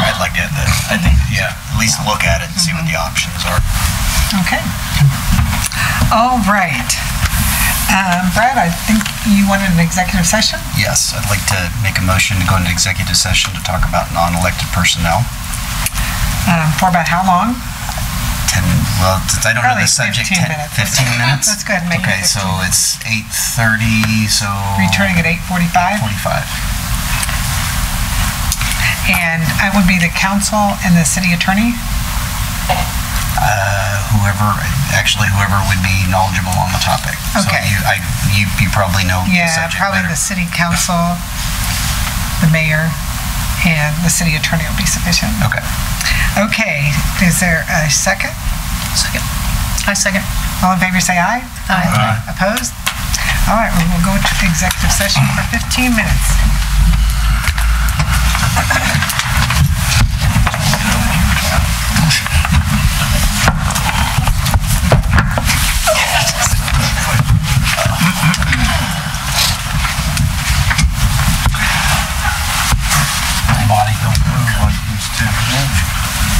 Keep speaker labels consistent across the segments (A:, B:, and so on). A: that I think, yeah, at least look at it and see what the
B: Mm-hmm.
A: options are.
B: Okay. All right. Um, Brad, I think you wanted an executive session?
A: Yes, I'd like to make a motion to go into executive session to talk about non-elected personnel.
B: Um, For about how long?
A: 10, well, since I don't know
B: Probably
A: the subject,
B: 15
A: 10,
B: minutes.
A: 15 minutes?
B: Let's go ahead and make it
A: Okay, so it's 8:30, so...
B: Returning at 8:45?
A: 45.
B: And I would be the council and the city attorney?
A: Whoever, actually whoever would be knowledgeable on the topic.
B: Okay.
A: So you, I, you, you probably know the
B: Yeah,
A: subject
B: probably
A: better.
B: the city council, the mayor, and the city attorney will be sufficient.
A: Okay.
B: Okay, is there a second?
C: Second. I second.
B: All in favor, say aye.
C: Aye.
B: Opposed? All right, we will go to executive session for 15 minutes.
A: Body don't move like these two.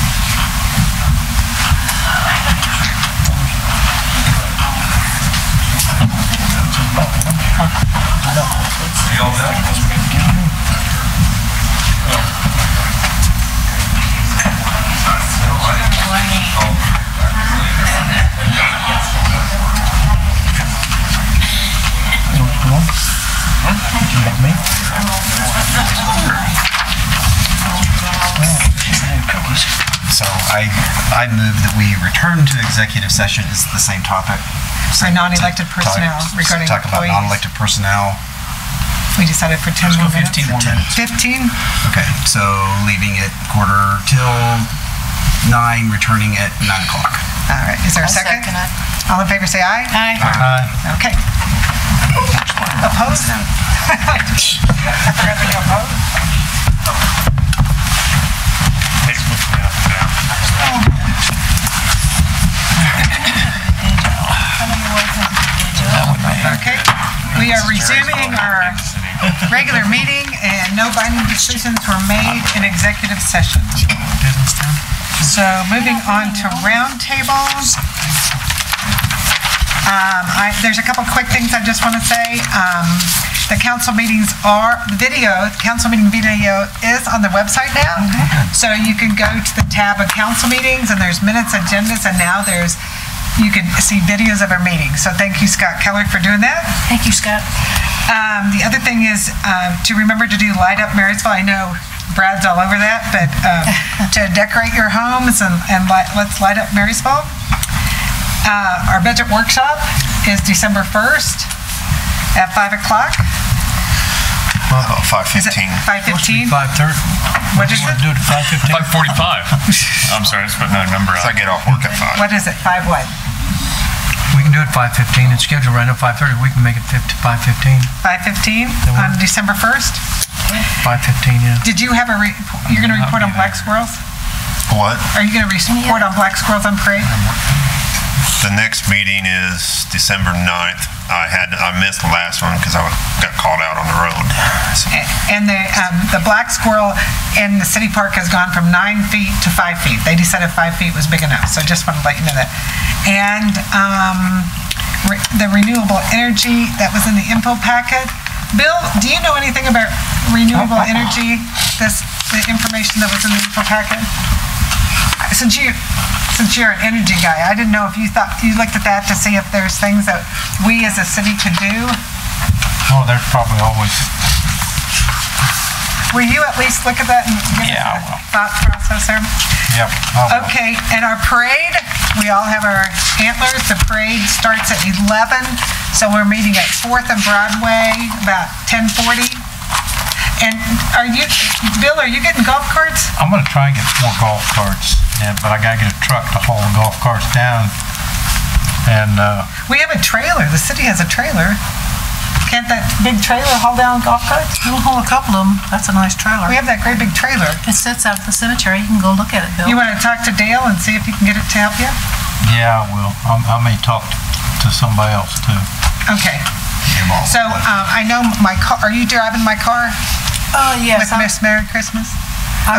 A: So I, I move that we return to executive session, it's the same topic.
B: For non-elected
A: Talk-
B: personnel regarding
A: Talk about
B: employees.
A: non-elected personnel.
B: We decided for 10 more minutes.
A: more minutes.
B: 15?
A: Okay, so leaving at quarter till nine, returning at nine o'clock.
B: All right, is there a second? All in favor, say aye.
C: Aye.
B: Okay. Opposed? Everybody opposed? Okay, we are resuming our regular meeting, and no binding decisions were made in executive session. So moving on to roundtables. Um, I- There's a couple quick things I just want to say. Um, The council meetings are, the video, the council meeting video is on the website now. So you can go to the tab of council meetings, and there's minutes, agendas, and now there's, you can see videos of our meetings. So thank you, Scott Keller, for doing that.
C: Thank you, Scott.
B: Um, the other thing is um, to remember to do light up Marysville. I know Brad's all over that, but um, to decorate your homes and, and light, let's light up Marysville. Uh, our budget workshop is December 1st at 5 o'clock.
D: Well,
B: Is it 5:15?
D: 5:15.
E: Five thirty.
B: What is it?
E: Do it at five fifteen.
F: 545. I'm sorry, I just put another number
D: So I
F: out.
D: get off work at 5.
B: What is it? 5 what?
E: We can do it five fifteen. It's scheduled right now five thirty. We can make it five fifteen.
B: 5:15
E: works.
B: on December 1st?
E: Five fifteen, yeah.
B: Did you have a, re- you're going to report on black squirrels?
D: What?
B: Are you going to report on black squirrels on parade?
D: The next meeting is December 9th. I had, I missed the last one because I got called out on the road. So
B: And the, um, the black squirrel in the city park has gone from nine feet to five feet. They decided five feet was big enough, so just wanted to let you know that. And, um, re- the renewable energy, that was in the info packet. Bill, do you know anything about renewable energy? This, the information that was in the info packet? Since you, since you're an energy guy, I didn't know if you thought, you looked at that to see if there's things that we as a city could do?
G: Oh, there's probably always,
B: Will you at least look at that and give us
G: Yeah, I
B: a
G: will.
B: thought process there?
G: yep. I will.
B: Okay, and our parade, we all have our antlers. The parade starts at 11, so we're meeting at 4th and Broadway about 10:40. And are you, Bill, are you getting golf carts?
G: I'm gonna try and get four golf carts, and, but I gotta get a truck to haul the golf carts down. And, uh,
B: We have a trailer, the city has a trailer. Can't that big trailer haul down golf carts?
C: We'll haul a couple of them. That's a nice trailer.
B: We have that great big trailer.
C: It sits out at the cemetery. You can go look at it,
B: You
C: Bill.
B: want to talk to Dale and see if he can get it to help you?
G: yeah, I will. I'm, I may talk to somebody else too.
B: Okay. uh, So um, I know my car, are you driving my car
C: Oh,
B: with Miss Merry Christmas?